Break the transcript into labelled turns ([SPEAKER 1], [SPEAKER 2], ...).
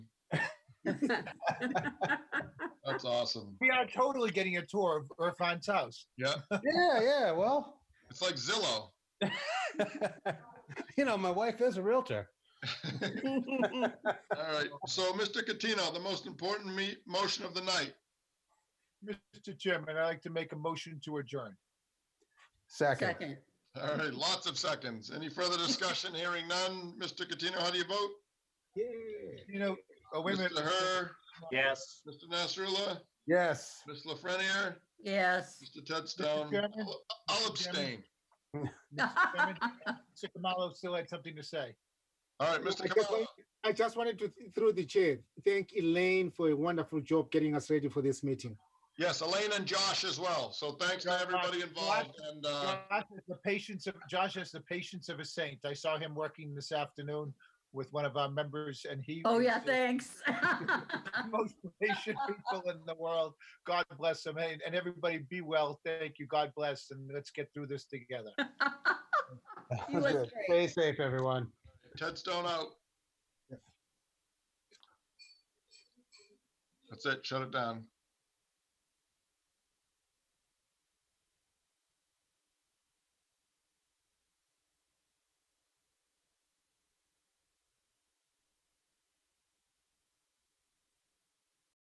[SPEAKER 1] That's awesome.
[SPEAKER 2] We are totally getting a tour of Irfan's house.
[SPEAKER 3] Yeah, yeah, well,
[SPEAKER 1] It's like Zillow.
[SPEAKER 3] you know, my wife is a Realtor.
[SPEAKER 1] All right. So, Mr. Catino, the most important me, motion of the night.
[SPEAKER 2] Mr. Chairman, I'd like to make a motion to adjourn.
[SPEAKER 3] Second.
[SPEAKER 4] Second.
[SPEAKER 1] All right. Lots of seconds. Any further discussion? Hearing none. Mr. Catino, how do you vote?
[SPEAKER 2] You know, oh, wait a minute.
[SPEAKER 1] Mr. Herr,
[SPEAKER 5] Yes.
[SPEAKER 1] Mr. Nasrullah,
[SPEAKER 3] Yes.
[SPEAKER 1] Ms. Lafreniere,
[SPEAKER 4] Yes.
[SPEAKER 1] Mr. Ted Stone.
[SPEAKER 2] Chairman?
[SPEAKER 1] I'll- I'll abstain.
[SPEAKER 2] Mr. Chairman, Mr. Kamalo still had something to say.
[SPEAKER 1] All right, Mr.
[SPEAKER 6] I just
[SPEAKER 1] Kamala.
[SPEAKER 6] want- I just wanted to, th- through the chair, thank Elaine for a wonderful job getting us ready for this meeting.
[SPEAKER 1] Yes, Elaine and Josh as well. So thanks to everybody involved and, uh,
[SPEAKER 2] Josh has the patience of, Josh has the patience of a saint. I saw him working this afternoon with one of our members and he.
[SPEAKER 4] Oh,
[SPEAKER 2] is
[SPEAKER 4] yeah,
[SPEAKER 2] the
[SPEAKER 4] thanks.
[SPEAKER 2] Most patient people in the world. God bless him. And and everybody be well. Thank you. God bless. And let's get through this together.
[SPEAKER 4] You look
[SPEAKER 3] Good. Stay
[SPEAKER 4] great.
[SPEAKER 3] safe, everyone.
[SPEAKER 1] Ted Stone out. That's it. Shut it down.